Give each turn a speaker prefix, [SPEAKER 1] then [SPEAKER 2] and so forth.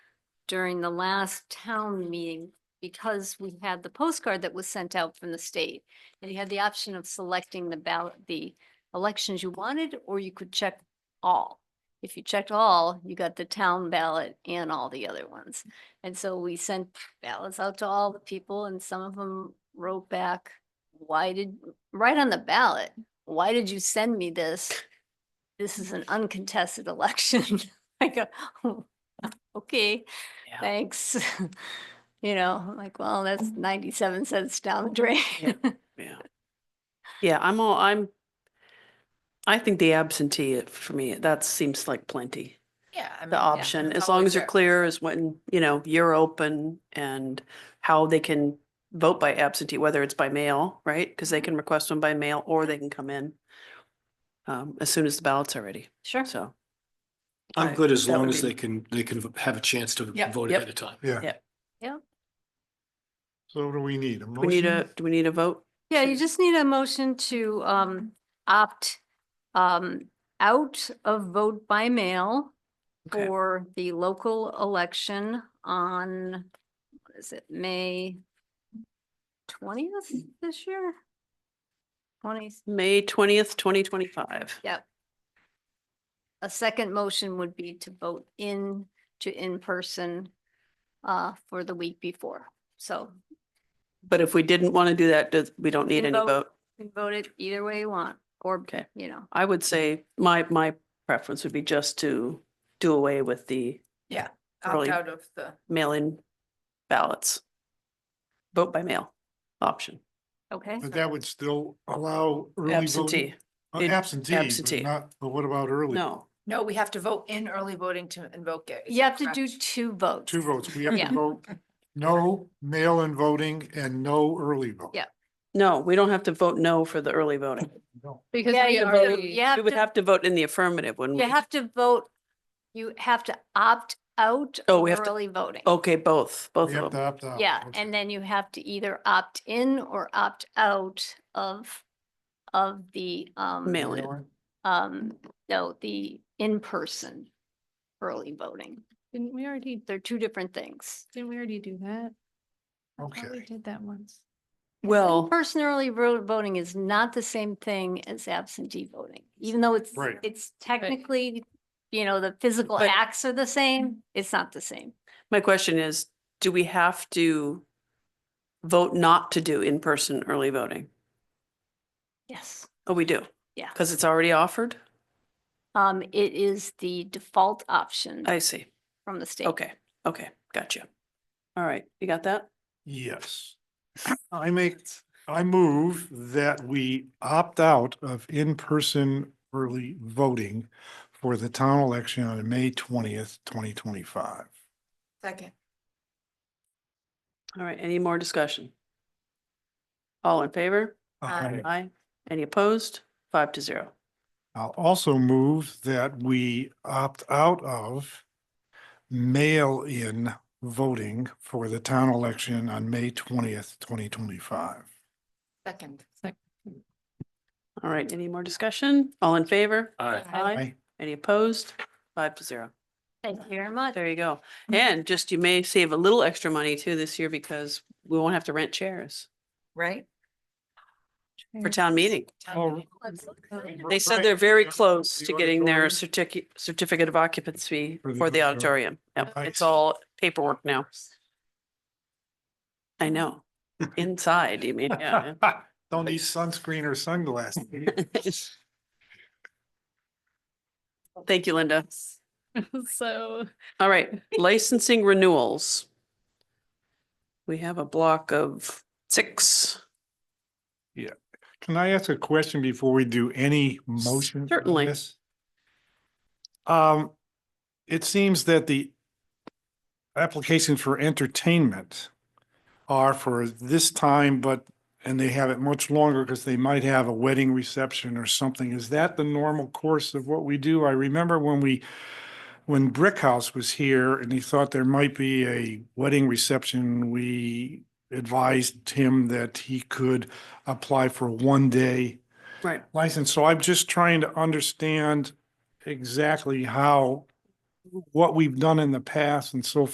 [SPEAKER 1] during the last town meeting because we had the postcard that was sent out from the state. And you had the option of selecting the ballot, the elections you wanted, or you could check all. If you checked all, you got the town ballot and all the other ones. And so we sent ballots out to all the people and some of them wrote back, why did, right on the ballot, why did you send me this? This is an uncontested election. I go, "Oh, okay,
[SPEAKER 2] Yeah. Mm.
[SPEAKER 1] thanks. You know, I'm like, well, that's ninety-seven cents down the drain.
[SPEAKER 2] Yeah. Yeah, I'm all, I'm, I think the absentee uh, for me, that seems like plenty.
[SPEAKER 3] Mm, Yeah. I mean,
[SPEAKER 2] The
[SPEAKER 3] yeah,
[SPEAKER 2] option,
[SPEAKER 3] it's
[SPEAKER 2] as long
[SPEAKER 3] always
[SPEAKER 2] as you're
[SPEAKER 3] there.
[SPEAKER 2] clear as when, you know, you're open and how they can vote by absentee, whether it's by mail, right? Because they can request them by mail or they can come in um, as soon as the ballot's are ready,
[SPEAKER 1] Sure.
[SPEAKER 2] so. I-
[SPEAKER 4] I'm good as
[SPEAKER 2] that
[SPEAKER 4] long
[SPEAKER 2] would
[SPEAKER 4] as
[SPEAKER 2] be-
[SPEAKER 4] they can, they can v- have a chance to
[SPEAKER 3] Yep.
[SPEAKER 4] vote
[SPEAKER 2] Yep.
[SPEAKER 4] ahead of time.
[SPEAKER 5] Yeah.
[SPEAKER 2] Yeah.
[SPEAKER 1] Yeah.
[SPEAKER 5] So what do we need? A
[SPEAKER 2] Do we need
[SPEAKER 5] motion?
[SPEAKER 2] a, do we need a vote?
[SPEAKER 1] Yeah, you just need a motion to um opt um out of vote by mail
[SPEAKER 2] Okay.
[SPEAKER 1] for the local election on, what is it, May twentieth this year? Twenty,
[SPEAKER 2] May twentieth, twenty twenty-five.
[SPEAKER 1] yep. A second motion would be to vote in to in-person uh for the week before. So
[SPEAKER 2] But if we didn't want to do that, does- we don't need
[SPEAKER 1] Can
[SPEAKER 2] any
[SPEAKER 1] vote.
[SPEAKER 2] vote.
[SPEAKER 1] you can vote it either way you want, or,
[SPEAKER 2] Okay.
[SPEAKER 1] you know,
[SPEAKER 2] I would say my, my preference would be just to do away with the
[SPEAKER 3] Opt
[SPEAKER 2] early.
[SPEAKER 3] out of the,
[SPEAKER 2] mail-in ballots. Vote by mail option,
[SPEAKER 1] okay?
[SPEAKER 5] But that would still allow early voting?
[SPEAKER 2] absentee.
[SPEAKER 5] Uh,
[SPEAKER 2] It-
[SPEAKER 5] Absentee,
[SPEAKER 2] absentee.
[SPEAKER 5] but not, but what about early?
[SPEAKER 2] No,
[SPEAKER 3] no, we have to vote in early voting to invoke it. is
[SPEAKER 1] You
[SPEAKER 3] that
[SPEAKER 1] have to
[SPEAKER 3] correct?
[SPEAKER 1] do two votes.
[SPEAKER 5] Two votes. We have
[SPEAKER 1] Yeah.
[SPEAKER 5] to vote no mail-in voting and no early vote.
[SPEAKER 1] Yeah.
[SPEAKER 2] no, we don't have to vote no for the early voting.
[SPEAKER 5] No.
[SPEAKER 6] Because
[SPEAKER 1] Yeah,
[SPEAKER 6] we
[SPEAKER 1] you do.
[SPEAKER 6] already,
[SPEAKER 1] You
[SPEAKER 2] We
[SPEAKER 1] have
[SPEAKER 2] would
[SPEAKER 1] to,
[SPEAKER 2] have to vote in the affirmative, wouldn't
[SPEAKER 1] you
[SPEAKER 2] we?
[SPEAKER 1] have to vote, you have to opt out
[SPEAKER 2] Oh,
[SPEAKER 1] of
[SPEAKER 2] we have to-
[SPEAKER 1] early voting.
[SPEAKER 2] Okay, both,
[SPEAKER 5] We
[SPEAKER 2] both
[SPEAKER 5] have
[SPEAKER 2] of
[SPEAKER 5] to
[SPEAKER 2] them.
[SPEAKER 5] opt out.
[SPEAKER 1] Yeah,
[SPEAKER 5] Oh, Okay.
[SPEAKER 1] and then you have to either opt in or opt out of, of the, um,
[SPEAKER 2] Mail. Mail-in.
[SPEAKER 5] Mail-in.
[SPEAKER 1] um, no, the in-person early voting.
[SPEAKER 6] didn't we already,
[SPEAKER 1] They're two different things.
[SPEAKER 6] didn't we already do that? I thought We
[SPEAKER 5] Okay.
[SPEAKER 6] did that once.
[SPEAKER 2] Well,
[SPEAKER 1] Person early ro- voting is not the same thing as absentee voting, even though it's,
[SPEAKER 5] Right.
[SPEAKER 1] it's technically, you know, the physical
[SPEAKER 2] But-
[SPEAKER 1] acts are the same, it's not the same.
[SPEAKER 2] my question is, do we have to vote not to do in-person early voting?
[SPEAKER 1] Yes.
[SPEAKER 2] Oh, we do.
[SPEAKER 1] Yeah.
[SPEAKER 2] Because it's already offered?
[SPEAKER 1] Um, it is the default option
[SPEAKER 2] I see.
[SPEAKER 1] from the state.
[SPEAKER 2] Okay, okay, gotcha. All right, you got that?
[SPEAKER 5] Yes. I make, I move that we opt out of in-person early voting for the town election on May twentieth, twenty twenty-five.
[SPEAKER 3] Second.
[SPEAKER 2] All right, any more discussion? All in favor?
[SPEAKER 3] Aye.
[SPEAKER 2] Aye. Any opposed? Five to zero.
[SPEAKER 5] I'll also move that we opt out of mail-in voting for the town election on May twentieth, twenty twenty-five.
[SPEAKER 3] Second.
[SPEAKER 2] All right, any more discussion? All in favor?
[SPEAKER 4] Aye.
[SPEAKER 5] Aye.
[SPEAKER 2] Any opposed? Five to zero.
[SPEAKER 1] Thank you very much.
[SPEAKER 2] There you go. And just you may save a little extra money too this year because we won't have to rent chairs
[SPEAKER 3] Right?
[SPEAKER 2] for town meeting.
[SPEAKER 3] Town
[SPEAKER 5] Oh,
[SPEAKER 3] meeting.
[SPEAKER 2] They said they're very close to getting their certificate, certificate of occupancy
[SPEAKER 5] For the
[SPEAKER 2] for the auditorium.
[SPEAKER 5] auditorium.
[SPEAKER 2] Yep, it's
[SPEAKER 5] Nice.
[SPEAKER 2] all paperwork now. I know. Inside, you mean, yeah.
[SPEAKER 5] Don't need sunscreen or sunglasses.
[SPEAKER 2] Thank you, Linda.
[SPEAKER 6] So.
[SPEAKER 2] All right, licensing renewals. We have a block of six.
[SPEAKER 5] Can I ask a question before we do any motion? on
[SPEAKER 2] Certainly.
[SPEAKER 5] this? Um, it seems that the applications for entertainment are for this time, but, and they have it much longer because they might have a wedding reception or something. Is that the normal course of what we do? I remember when we, when Brick House was here and he thought there might be a wedding reception, we advised him that he could apply for one day
[SPEAKER 2] Right.
[SPEAKER 5] license. So I'm just trying to understand exactly how, what we've done in the past and so